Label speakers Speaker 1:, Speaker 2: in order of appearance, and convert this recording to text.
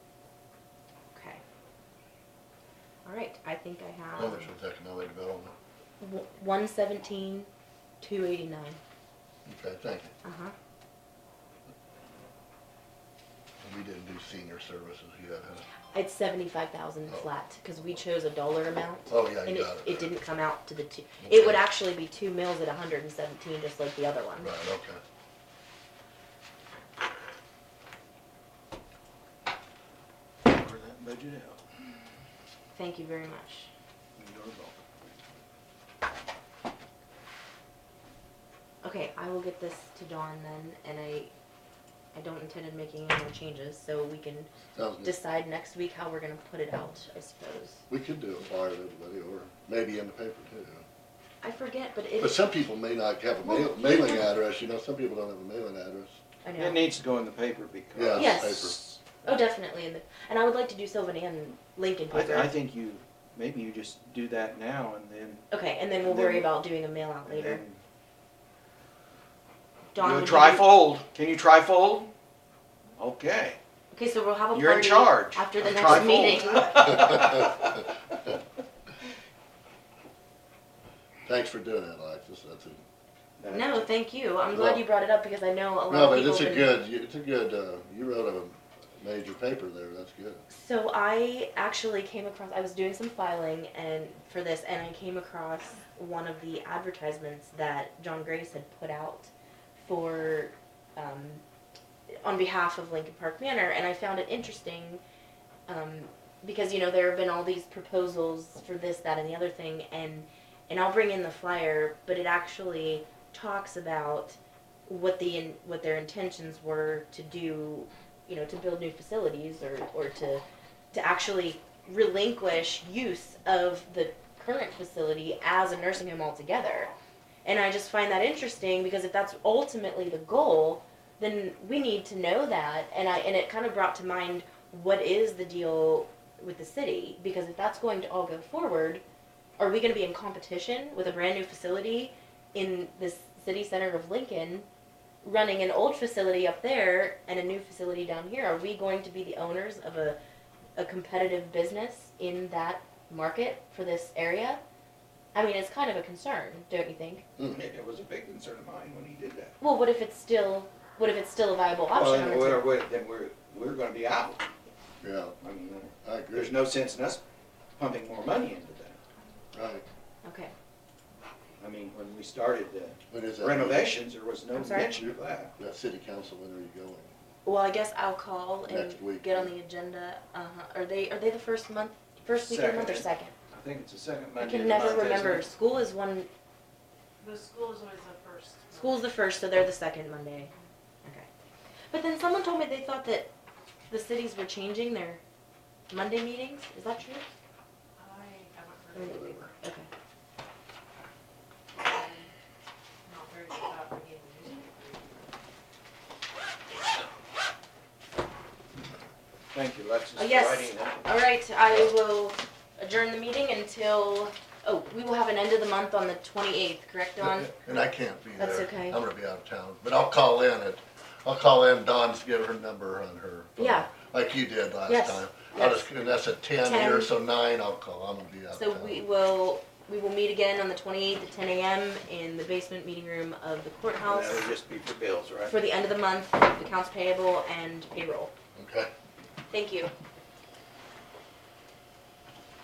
Speaker 1: I, I think I have
Speaker 2: How much was economic development?
Speaker 1: one seventeen, two eighty nine.
Speaker 2: Okay, thank you.
Speaker 1: Uh huh.
Speaker 2: And We didn't do senior services yet, huh?
Speaker 1: It's seventy five thousand
Speaker 2: Oh.
Speaker 1: flat because we chose a dollar amount.
Speaker 2: Oh, yeah,
Speaker 1: And
Speaker 2: you
Speaker 1: it,
Speaker 2: got it.
Speaker 1: it didn't come out to the two,
Speaker 2: Okay.
Speaker 1: it would actually be two mills at hundred and seventeen, just like the other one.
Speaker 2: Right, okay.
Speaker 3: Or that budget out.
Speaker 1: Thank you very much.
Speaker 3: You're welcome.
Speaker 1: Okay, I will get this to Dawn then, and I, I don't intend on making any more changes, so we can
Speaker 2: Sounds good.
Speaker 1: decide next week how we're gonna put it out, I suppose.
Speaker 2: We could do a flyer to everybody, or maybe in the paper too.
Speaker 1: I forget, but
Speaker 2: But
Speaker 1: it,
Speaker 2: some people may not have a mail-
Speaker 1: Well,
Speaker 2: mailing
Speaker 1: yeah.
Speaker 2: address, you know, some people don't have a mailing address.
Speaker 1: I
Speaker 3: It
Speaker 1: know,
Speaker 3: needs to go in the paper
Speaker 2: Yeah,
Speaker 3: because.
Speaker 1: Yes.
Speaker 2: it's
Speaker 1: oh, definitely, and, the- and I would like to do Sylvan and Lincoln
Speaker 3: I, I
Speaker 1: paper.
Speaker 3: think you, maybe you just do that now and then.
Speaker 1: Okay, and then we'll
Speaker 3: and then-
Speaker 1: worry about doing a mail out
Speaker 3: and
Speaker 1: later.
Speaker 3: then-
Speaker 1: Dawn,
Speaker 3: You
Speaker 1: would
Speaker 3: try
Speaker 1: you-
Speaker 3: fold. Can you try fold? Okay.
Speaker 1: Okay, so we'll have a party.
Speaker 3: You're in charge.
Speaker 1: After the
Speaker 3: Try
Speaker 1: next
Speaker 3: fold.
Speaker 1: meeting.
Speaker 2: paper. Thanks for doing that, Alexis, that's a,
Speaker 1: No, thank you, I'm glad
Speaker 2: Well-
Speaker 1: you brought it up because I know a lot of people.
Speaker 2: no, but it's a
Speaker 1: have been-
Speaker 2: good, it's a good, uh, you wrote a major paper there, that's good.
Speaker 1: So I actually came across. I was doing some filing and for this, and I came across one of the advertisements that John Grace had put out for, um, on behalf of Lincoln Park Manor, and I found it interesting, um, because you know there have been all these proposals for this, that, and the other thing, and and I'll bring in the flyer, but it actually talks about what the in, what their intentions were to do you know, to build new facilities or, or to, to actually relinquish use of the current facility as a nursing home altogether. And I just find that interesting because if that's ultimately the goal, then we need to know that. And I, and it kind of brought to mind what is the deal with the city? Because if that's going to all go forward, are we going to be in competition with a brand new facility in this city center of Lincoln? running an old facility up there and a new facility down here, are we going to be the owners of a, a competitive business in that market for this area? I mean, it's kind of a concern, don't you think?
Speaker 3: It was a big concern of mine when he did that.
Speaker 1: Well, what if it's still, what if it's still a viable
Speaker 3: Well,
Speaker 1: option?
Speaker 3: then
Speaker 1: or
Speaker 3: we're,
Speaker 1: it's-
Speaker 3: we're- then we're, we're gonna be out.
Speaker 2: Yeah,
Speaker 3: I mean, uh,
Speaker 2: I agree.
Speaker 3: there's no sense in us pumping more money into that.
Speaker 2: Right.
Speaker 1: Okay,
Speaker 3: I mean, when we started the
Speaker 2: When is that?
Speaker 3: renovations, there was no
Speaker 1: I'm sorry?
Speaker 3: mention of that.
Speaker 2: That city council, when are you going?
Speaker 1: well, I guess I'll call and
Speaker 2: Next week.
Speaker 1: get on the agenda, uh-huh, are they, are they the first month, first week of the month or second?
Speaker 3: Second. I think it's the second
Speaker 1: I
Speaker 3: Monday.
Speaker 1: can
Speaker 3: of the
Speaker 1: never
Speaker 3: month, isn't
Speaker 1: remember,
Speaker 3: it?
Speaker 1: school is one,
Speaker 4: The school is always the first.
Speaker 1: School's the first, so they're the second Monday. Okay. But then someone told me they thought that the cities were changing their Monday meetings. Is that true?
Speaker 4: I
Speaker 1: Or-
Speaker 4: haven't heard of it.
Speaker 1: Okay.
Speaker 4: I'm Not very good about reading the newspaper.
Speaker 3: Thank you, Alexis,
Speaker 1: Oh,
Speaker 3: for
Speaker 1: yes.
Speaker 3: writing that.
Speaker 1: All right, I will adjourn the meeting until, oh, we will have an end of the month on the twenty-eighth, correct, Dawn?
Speaker 2: And I can't be there.
Speaker 1: That's okay.
Speaker 2: I'm gonna be out of town, but I'll call in at, I'll call in, Dawn's give her number on her. phone,
Speaker 1: Yeah.
Speaker 2: Like you did
Speaker 1: Yes,
Speaker 2: last time. I'll
Speaker 1: yes.
Speaker 2: just, and that's at ten
Speaker 1: 10.
Speaker 2: here, so nine I'll call, I'm gonna be out
Speaker 1: So
Speaker 2: of
Speaker 1: we
Speaker 2: town.
Speaker 1: will, we will meet again on the twenty-eighth at ten AM in the basement meeting room of the
Speaker 3: And
Speaker 1: courthouse
Speaker 3: That would just be for bills, right?
Speaker 1: for the end of the month, accounts payable and payroll.
Speaker 2: Okay,
Speaker 1: Thank you.